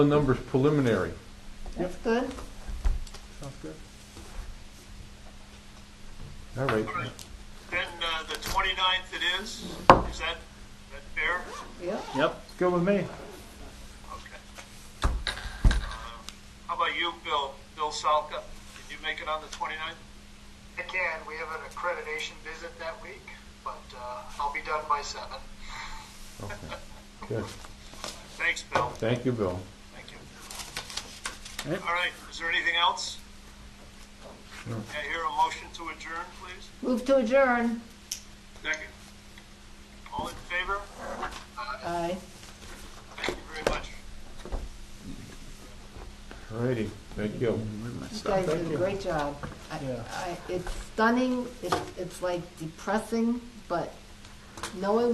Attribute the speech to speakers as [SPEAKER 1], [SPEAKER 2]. [SPEAKER 1] The number's preliminary.
[SPEAKER 2] That's good.
[SPEAKER 3] Sounds good.
[SPEAKER 1] All right.
[SPEAKER 4] Then uh, the 29th it is? Is that, that fair?
[SPEAKER 2] Yeah.
[SPEAKER 3] Yep, it's good with me.
[SPEAKER 4] Okay. Um, How about you, Bill? Bill Salka? Can you make it on the 29th?
[SPEAKER 5] I can. We have an accreditation visit that week, but uh, I'll be done by seven.
[SPEAKER 1] Good.
[SPEAKER 4] Thanks, Bill.
[SPEAKER 1] Thank you, Bill.
[SPEAKER 4] Thank you.
[SPEAKER 3] Yep.
[SPEAKER 4] All right, is there anything else? Can I hear a motion to adjourn, please?
[SPEAKER 2] Move to adjourn.
[SPEAKER 4] Second. All in favor?
[SPEAKER 2] Aye.
[SPEAKER 4] Thank you very much.
[SPEAKER 1] All righty. Thank you.
[SPEAKER 2] You guys
[SPEAKER 1] Thank
[SPEAKER 2] did
[SPEAKER 1] you.
[SPEAKER 2] a great job. I,
[SPEAKER 3] Yeah.
[SPEAKER 2] I, it's stunning, it's, it's like depressing, but knowing